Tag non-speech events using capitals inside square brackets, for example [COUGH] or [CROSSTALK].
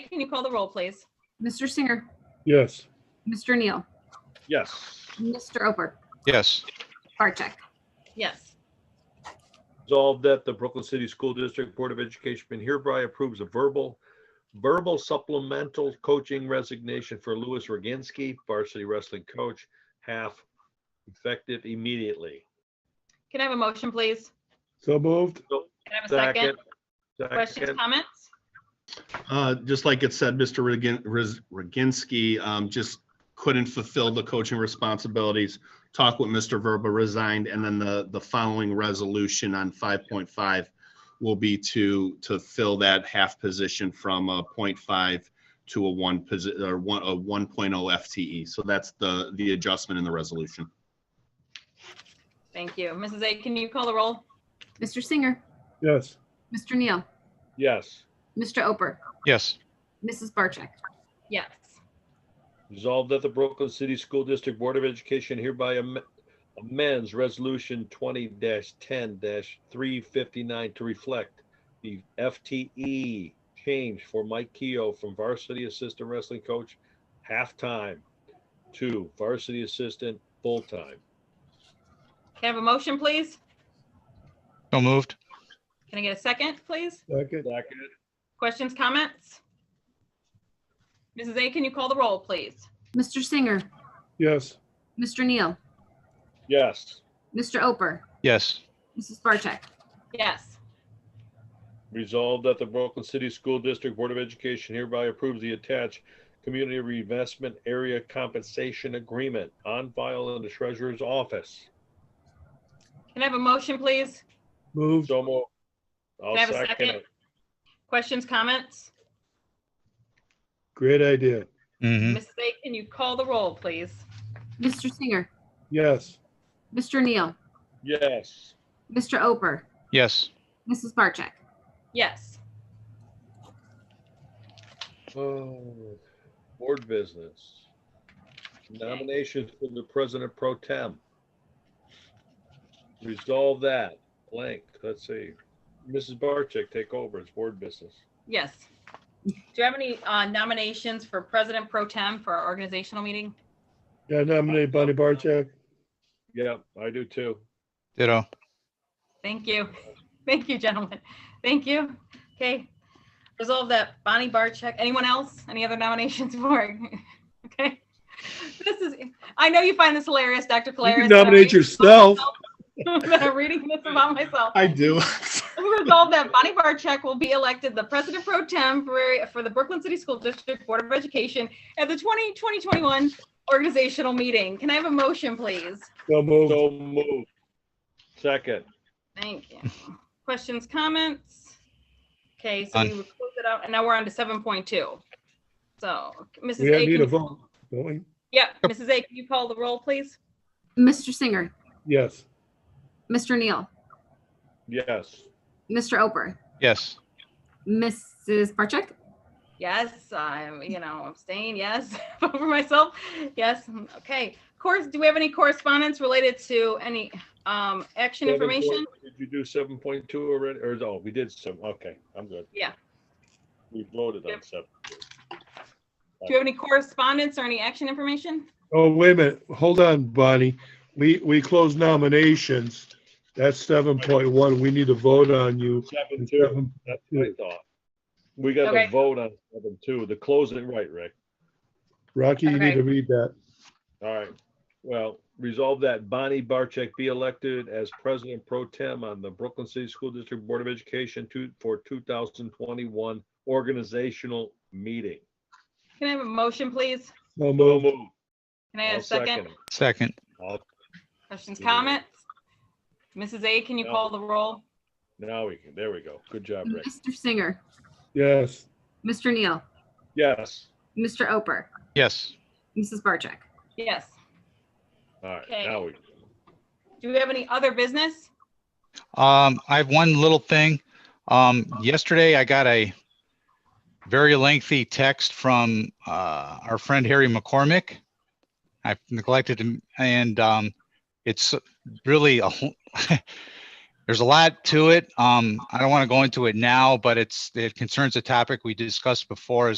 can you call the roll, please? Mr. Singer, Yes. Mr. Neal, Yes. Mr. Ober, Yes, Barcheck. Yes. Resolved that the Brooklyn City School District Board of Education hereby approves a verbal, verbal supplemental coaching resignation for Louis Roginski, varsity wrestling coach, half effective immediately. Can I have a motion, please? So moved. Can I have a second? Questions, Second. comments? Uh, Just like it said, Mr. Ragin- Riz- Roginski um, just couldn't fulfill the coaching responsibilities. Talk with Mr. Verba resigned, and then the, the following resolution on 5.5 will be to, to fill that half position from a .5 to a 1, posi- or one- oh a 1.0 FTE. E. So that's the, the adjustment in the resolution. Thank you. Mrs. A, can you call the roll? Mr. Singer, Yes. Mr. Neal, Yes. Mr. Ober, yes, Mrs. Barcheck. Yes. Resolved that the Brooklyn City School District Board of Education hereby am- amends Resolution twenty ten three fifty-nine to reflect the FTE change for Mike Keough from varsity assistant wrestling coach half-time to varsity assistant full-time. Can I have a motion, please? so moved. Can I get a second, please? Second. Second. Questions, comments? Mrs. A, can you call the roll, please? Mr. Singer, Yes. Mr. Neal, Yes. Mr. Ober, Yes, Mrs. Barcheck. Yes. Resolved that the Brooklyn City School District Board of Education hereby approves the attached Community Reinvestment Area Compensation Agreement on file in the Treasurer's Office. Can I have a motion, please? Moved. So moved. I'll Can I have a second second? it. Questions, comments? Great idea. hmm Mrs. A, can you call the roll, please? Mr. Singer, Yes. Mr. Neal, Yes. [SIGHS] Mr. Ober, yes, Mrs. Barcheck. Yes. Oh, Board business. Nominations for the President Pro Tem. Resolve that blank. Let's see. Mrs. Barcheck, take over. It's board business. Yes. Do you have any uh, nominations for President Pro Tem for our organizational meeting? Yeah, nominate Bonnie Barcheck. Yeah, I do too. ditto, Thank you. [LAUGHS] Thank you, gentlemen. Thank you. Okay. Resolve that Bonnie Barcheck, anyone else? Any other nominations for? [LAUGHS] Okay. This is, I know you find this hilarious, Dr. You Claris. can but I'm nominate reading [LAUGHS] this yourself. about myself. I'm reading this about [LAUGHS] myself. I do. [LAUGHS] Resolve that Bonnie Barcheck will be elected the president pro temporary for the Brooklyn City School District Board of Education at the 20 2021 organizational meeting. Can I have a motion, please? So moved. So moved. Second. Thank you. Questions, comments? Okay, so we None. would close it out, and now we're on to seven point two. So, Mrs. We A. need a can- vote, don't we? Yeah, Mrs. A, can you call the roll, please? Mr. Singer, Yes. Mr. Neal, Yes. Mr. Ober, yes, Mrs. Barcheck. Yes, I'm, you know, abstain, yes, [LAUGHS] vote for myself, yes, okay. Course, do we have any correspondence related to any um action Seven point- information? Did you do seven point two already? Or, no, we did some, okay, I'm good. Yeah. We voted on Yep. seven. Do you have any correspondence or any action information? Oh, wait a minute. Hold on, Bonnie. We, we closed nominations. That's seven point one. We need to vote on you. Seven two, that's what I thought. We got Okay. to vote on seven two, the closing, right, Rick? Rocky, you need to read that. All right. Well, resolve that Bonnie Barcheck be elected as president pro tem on the Brooklyn City School District Board of Education to, for two thousand twenty-one organizational meeting. Can I have a motion, please? So So moved. moved. Can I have I'll a second? it. second, I'll- Questions, Yeah. comments? Mrs. A, can you No. call the roll? Now we can, there we go. Good job, Mm-hmm. Rick. Mr. Singer, Yes. Mr. Neal, Yes. Mr. Ober, yes, Mrs. Barcheck. Yes. All right, Okay. now we, Do we have any other business? Um, I have one little thing. Um, yesterday I got a very lengthy text from, uh, our friend Harry McCormick. I neglected him and, um, it's really a, whole- [LAUGHS] there's a lot to it. Um, I don't want to go into it now, but it's, it concerns a topic we discussed before as